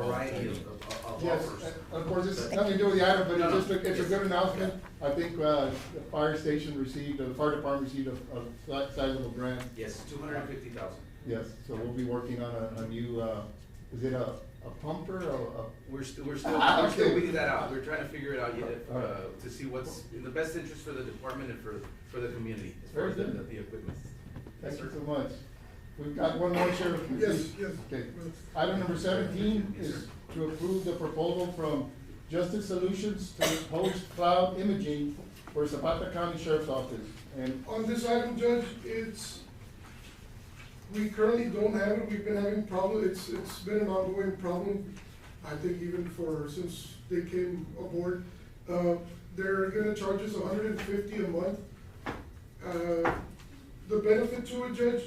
variety of, of of Yes, offers. of course, it's nothing to do with the item, but No, it's no. just, a- it's a Yes. good announcement. I think, uh, the fire station received, uh, the fire department received a, a si- sizable grant. Yes, two hundred and fifty thousand. Yes, so we'll be working on a, a new, uh, is it a, a pumper or We're still, we're still, Ah, we're still okay. weeding that out. We're trying to figure it out yet, All right. uh, to see what's in the best interest for the department and for, for the community, as far Very as the, good. the equipment. a, Yes, thank you sir. so much. We've got one more, Sheriff. Yes, yes. Okay. Item number seventeen Yes, is sir. to approve the proposal from Justice Solutions to host cloud imaging for Zapata County Sheriff's Office. And, On this item, Judge, it's, we currently don't have it, we've been having problem, it's, it's been an ongoing problem. I think even for, since they came aboard, uh, they're gonna charge us hundred and fifty a month. Uh, The benefit to it, Judge,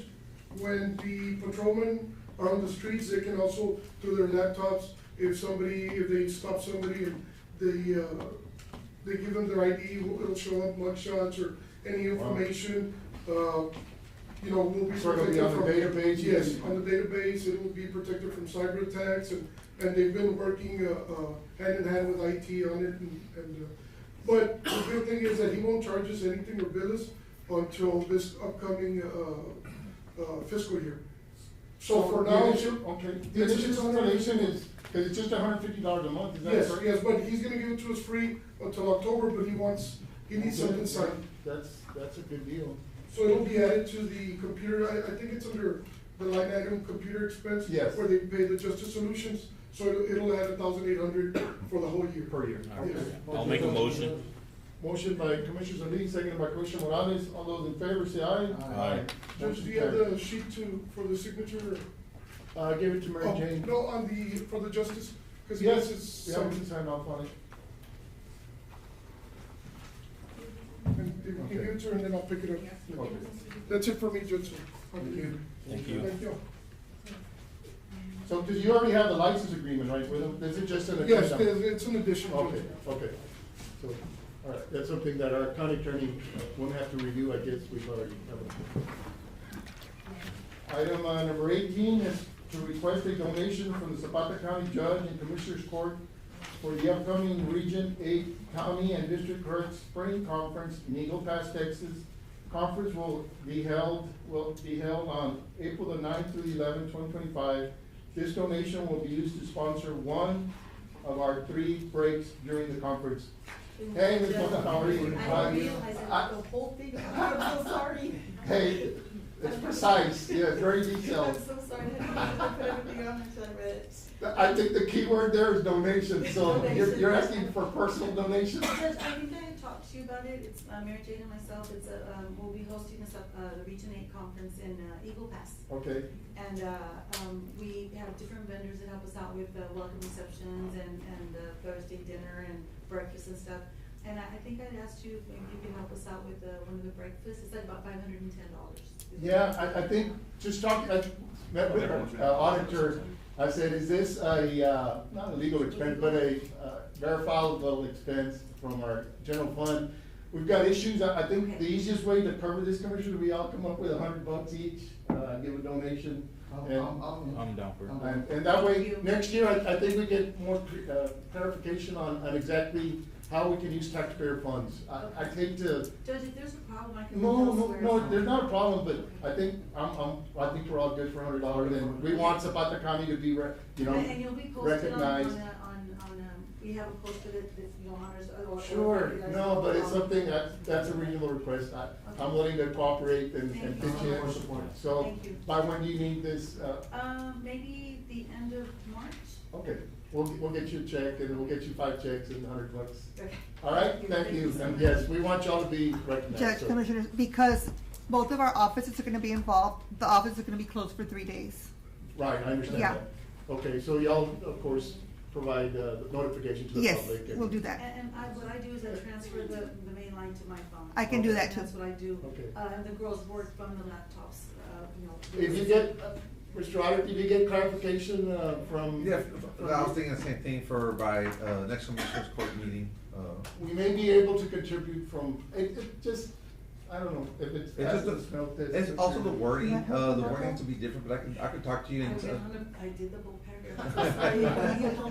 when the patrolmen are on the streets, they can also, through their laptops, if somebody, if they stop somebody and they, uh, they give them their ID, it'll show up mugshots or any information, uh, you know, will be Sort of be protected on the from. database, Yes, yes. on the database, it will be protected from cyber attacks, and, and they've been working, uh, uh, hand in hand with IT on it, and, and, uh, but the good thing is that he won't charge us anything or bill us until this upcoming, uh, uh, fiscal year. So for now, The initial- Okay, the It's initial just- installation is, cause it's just hundred fifty dollars a month, is that yes, correct? yes, but he's gonna give it to us free until October, but he wants, he needs something signed. That's, that's a good deal. So it'll be added to the computer, I, I think it's under the line item, computer expense. Yes. Where they pay the Justice Solutions, so it'll, it'll add a thousand eight hundred for the whole year. Per year. All right. I'll make a motion. Motion by Commissioner Solis, seconded by Commissioner Morales, all those in favor say aye. Aye. Judge, do you have the sheet to, for the signature? Uh, give it to Mary Oh, Jane. No, on the, for the Justice, because he has Yes, his we have to sign, sign off on it. and if you can give it to her, and then I'll pick it up. Okay. That's it for me, Judge. Thank you. Thank you. Thank you. So, cause you already have the license agreement, right, with them, is it just an Yes, addition? there's- it's an addition, Okay, Judge. okay. So, all right, that's something that our county attorney won't have to review, I guess we've already covered. Item uh, number eighteen is to request a donation from the Zapata County Judge and Commissioners Court for the upcoming Region Eight County and District Court Spring Conference in Eagle Pass, Texas. Conference will be held, will be held on April the 9th through the eleventh, twenty twenty-five. This donation will be used to sponsor one of our three breaks during the conference. Hey, Ms. Mota, how are you? I didn't Hi. realize I wrote the whole thing, I'm so sorry. Hey, it's precise, yeah, very I'm detailed. so sorry, I didn't know I put everything on until I read it. I think the key word there is donation, so you're, you're asking for personal donation? Judge, I think I talked to you about it, it's uh, Mary Jane and myself, it's a, um, we'll be hosting this, up, uh, the Region Eight Conference in uh, Eagle Pass. Okay, And, uh, um, we have different vendors that help us out with the welcome receptions and, and the Thursday dinner and breakfast and stuff. And I, I think I'd asked you if maybe you could help us out with, uh, one of the breakfasts, it's like about five hundred and ten dollars. yeah, I, I think, just talk, I met with our uh, auditor, I said, is this a, uh, not a legal expense, but a uh, verifiable expense from our general fund? We've got issues, I, I think the easiest way to cover this, Commissioner, we all come up with a hundred bucks each, uh, give a donation. and- I'm down for it. And, and that way, Thank you. next year, I, I think we get more uh, clarification on, on exactly how we can use taxpayer funds. I, I hate to, Judge, if there's a problem, I can. no, no, elsewhere. no, there's not a problem, but I think, I'm, I'm, I think we're all good for a hundred dollars, and we want Zapata County to be, re- you know, And and you'll be posted on, on, recognized. a- on, on, um, we have a poster that, that, you know, honors. uh, or- or- Sure, or- no, but it's something, that's, that's a reasonable request, I, I'm willing to cooperate and, and pitch Thank you. in. So, Thank you. by when do you need this, uh, Um, maybe the end of March? okay, we'll, we'll get you a check, and we'll get you five checks and a hundred bucks. Okay. All right, thank you, so and much. yes, we want y'all to be recognized. Judge, so- Commissioners, because both of our offices are gonna be involved, the office is gonna be closed for three days. Right, I understand Yeah. that. Okay, so y'all, of course, provide uh, notification to the Yes, public. and- we'll do And, that. and I, what I do is I transfer the, the main line to my phone. I can do that That's too. what I do. Okay. Uh, and the girls work from the laptops, uh, you know. If you get, uh, Mr. Otter, if you get clarification uh, from. Yeah, I was thinking the same thing for by, uh, next commissioners court meeting, uh, We may be able to contribute from, it, it just, I don't know, if it's. it's just, I just felt the- this- it's also the wording, Yeah. uh, the wording has to be different, but I can, I can talk to I you and, went uh, on a- I did the whole paragraph. Yeah.